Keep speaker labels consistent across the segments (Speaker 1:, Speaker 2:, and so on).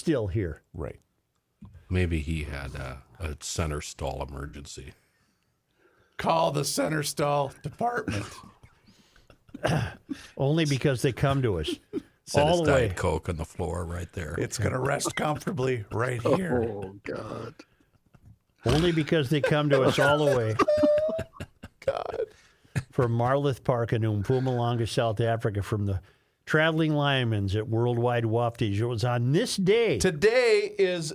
Speaker 1: still here.
Speaker 2: Right.
Speaker 3: Maybe he had a, a center stall emergency.
Speaker 2: Call the center stall department.
Speaker 1: Only because they come to us
Speaker 3: Set
Speaker 1: all
Speaker 3: his
Speaker 1: the
Speaker 3: Diet
Speaker 1: way.
Speaker 3: Coke on the floor right there.
Speaker 2: It's going to rest comfortably right here.
Speaker 3: oh, God.
Speaker 1: Only because they come to us all the way. From Marloth Park in Mpumalanga, South Africa, from the Traveling Lyman's at Worldwide Wafties. It was on this day.
Speaker 2: Today is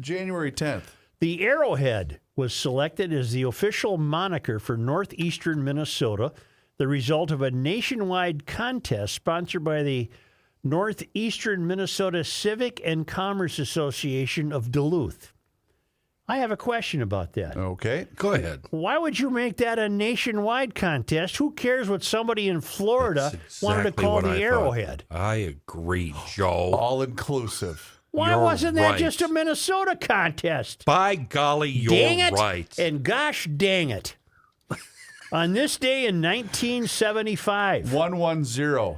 Speaker 2: January 10th.
Speaker 1: The Arrowhead was selected as the official moniker for northeastern Minnesota, the result of a nationwide contest sponsored by the Northeastern Minnesota Civic and Commerce Association of Duluth. I have a question about that.
Speaker 3: Oh.
Speaker 2: Okay.
Speaker 3: Go ahead.
Speaker 1: Why would you make that a nationwide contest? Who cares what somebody in Florida
Speaker 3: That's
Speaker 1: wanted to
Speaker 3: exactly
Speaker 1: call
Speaker 3: what
Speaker 1: the
Speaker 3: I thought.
Speaker 1: Arrowhead? Oh.
Speaker 3: I agree, Joe.
Speaker 2: All inclusive.
Speaker 1: Why
Speaker 3: You're
Speaker 1: wasn't that
Speaker 3: right.
Speaker 1: just a Minnesota contest?
Speaker 3: By golly, you're
Speaker 1: dang it
Speaker 3: right.
Speaker 1: and gosh dang it. On this day in 1975,
Speaker 2: 110.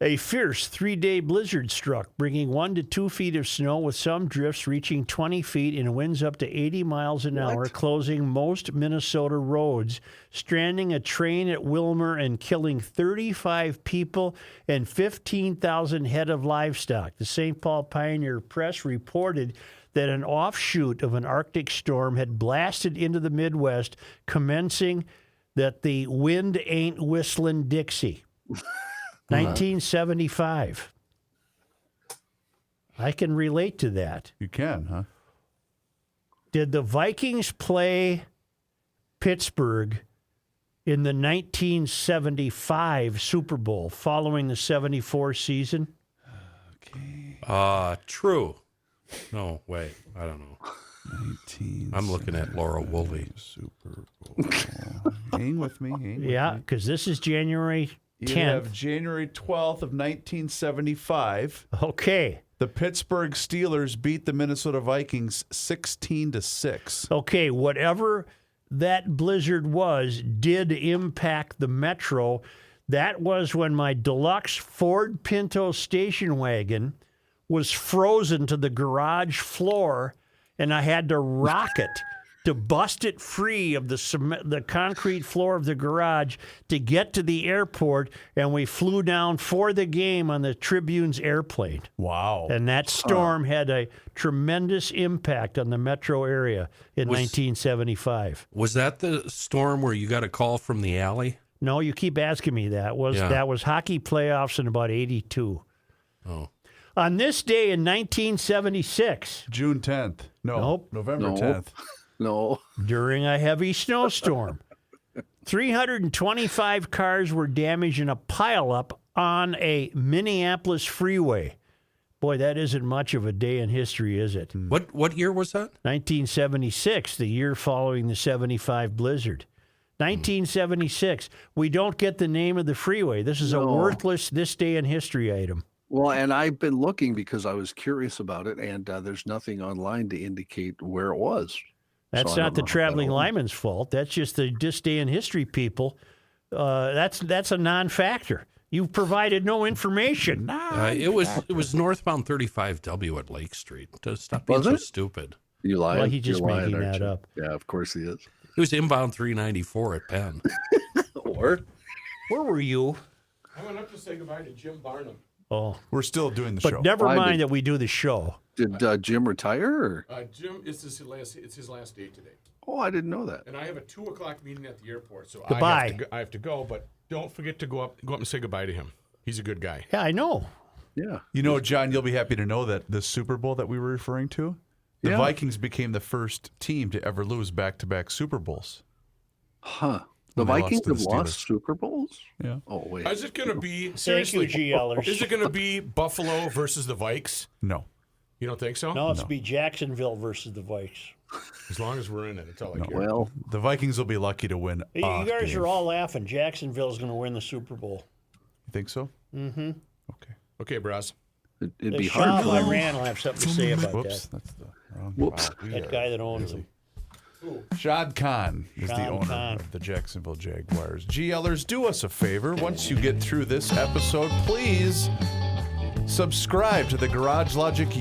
Speaker 1: a fierce three day blizzard struck, bringing one to two feet of snow with some drifts reaching 20 feet and winds up to 80 miles an hour, closing most Minnesota roads, stranding a train at Wilmer and killing 35 people and 15,000 head of livestock. The St. Paul Pioneer Press reported that an offshoot of an Arctic storm had blasted into the Midwest, commencing that the wind ain't whistling Dixie. 1975. I can relate to that.
Speaker 2: You can, huh?
Speaker 1: Did the Vikings play Pittsburgh in the 1975 Super Bowl following the 74 season?
Speaker 3: Uh, true. No, wait. I don't know.
Speaker 2: 19.
Speaker 3: I'm looking at Laura Woolley.
Speaker 2: Super Bowl. hang with me. Hang with
Speaker 1: Yeah,
Speaker 2: me.
Speaker 1: because this is January
Speaker 2: You have
Speaker 1: 10th.
Speaker 2: January 12th of 1975.
Speaker 1: Okay.
Speaker 2: The Pittsburgh Steelers beat the Minnesota Vikings 16 to 6.
Speaker 1: Okay, whatever that blizzard was did impact the metro. That was when my deluxe Ford Pinto station wagon was frozen to the garage floor and I had to rock it to bust it free of the cement, the concrete floor of the garage to get to the airport and we flew down for the game on the Tribune's airplane.
Speaker 2: Wow.
Speaker 1: And
Speaker 3: Uh,
Speaker 1: that storm had a tremendous impact on the metro area in 1975.
Speaker 3: Was that the storm where you got a call from the alley?
Speaker 1: No, you keep asking me that. Was
Speaker 3: Yeah.
Speaker 1: that was hockey playoffs in about 82.
Speaker 3: Oh.
Speaker 1: On this day in 1976,
Speaker 2: June 10th. No.
Speaker 1: Nope.
Speaker 2: November
Speaker 4: Nope.
Speaker 2: 10th.
Speaker 4: No.
Speaker 1: during a heavy snowstorm, 325 cars were damaged in a pileup on a Minneapolis freeway. Boy, that isn't much of a day in history, is it?
Speaker 3: What what year was that?
Speaker 1: 1976, the year following the 75 blizzard. 1976. We don't get the name of the freeway. This is a
Speaker 4: No.
Speaker 1: worthless this day in history item.
Speaker 4: Well, and I've been looking because I was curious about it, and uh, there's nothing online to indicate where it was.
Speaker 1: That's
Speaker 4: So I
Speaker 1: not
Speaker 4: don't
Speaker 1: the
Speaker 4: know if that
Speaker 1: traveling
Speaker 4: will-
Speaker 1: lineman's fault. That's just the this day in history people. Uh, that's that's a non-factor. You've provided no information.
Speaker 3: Uh, it was it was northbound 35W at Lake Street. To stop being
Speaker 4: Was
Speaker 3: so
Speaker 4: it?
Speaker 3: stupid.
Speaker 4: You lying?
Speaker 1: Well, he's
Speaker 4: You're
Speaker 1: just
Speaker 4: lying,
Speaker 1: making
Speaker 4: aren't
Speaker 1: that
Speaker 4: you?
Speaker 1: up.
Speaker 4: Yeah, of course he is.
Speaker 3: It was inbound 394 at Penn.
Speaker 4: Or
Speaker 1: Where were you?
Speaker 5: I went up to say goodbye to Jim Barnum.
Speaker 1: Oh,
Speaker 2: We're still doing the
Speaker 1: but
Speaker 2: show.
Speaker 1: never
Speaker 4: Why
Speaker 1: mind
Speaker 4: did-
Speaker 1: that we do the show.
Speaker 4: did uh, Jim retire? Or?
Speaker 5: Uh, Jim, it's his last. It's his last day today,
Speaker 4: Oh, I didn't know that.
Speaker 5: and I have a two o'clock meeting at the airport. So I
Speaker 1: Goodbye.
Speaker 5: have, to go, I have to go. But don't forget to go up. Go up and say goodbye to him. He's a good guy.
Speaker 1: Yeah, I know.
Speaker 4: Yeah.
Speaker 2: you know, John, you'll be happy to know that the Super Bowl that we were referring to, the
Speaker 4: Yeah.
Speaker 2: Vikings became the first team to ever lose back to back Super Bowls.
Speaker 4: Huh. The
Speaker 2: When they lost
Speaker 4: Vikings
Speaker 2: to the
Speaker 4: have lost
Speaker 2: Steelers.
Speaker 4: Super Bowls?
Speaker 2: Yeah.
Speaker 4: Oh, wait.
Speaker 5: Is it going to be
Speaker 1: Thank you,
Speaker 5: seriously? is
Speaker 1: GLers.
Speaker 5: it going to be Buffalo versus the Vikes?
Speaker 2: No.
Speaker 5: You don't think so?
Speaker 1: No, it's be Jacksonville versus the Vikes.
Speaker 5: As long as we're in it, that's all I care.
Speaker 4: Well,
Speaker 2: The Vikings will be lucky to win.
Speaker 1: You
Speaker 2: a
Speaker 1: guys
Speaker 2: game.
Speaker 1: are all laughing. Jacksonville's going to win the Super Bowl.
Speaker 2: You think so? Mm
Speaker 1: Mm-hmm.
Speaker 2: hmm. Okay.
Speaker 5: Okay, Bros.
Speaker 4: it, it'd
Speaker 1: Hey,
Speaker 4: be
Speaker 1: Shah
Speaker 4: hard. for them.
Speaker 1: Iran will have something to say about
Speaker 2: Whoops.
Speaker 1: that.
Speaker 2: That's the wrong
Speaker 4: Whoops.
Speaker 2: file. We
Speaker 1: That
Speaker 2: are-
Speaker 1: guy that owns them.
Speaker 2: Shad Khan is the
Speaker 1: Shad
Speaker 2: owner
Speaker 1: Khan.
Speaker 2: of the Jacksonville Jaguars. GLers, do us a favor. Once you get through this episode, please Subscribe to the Garage Logic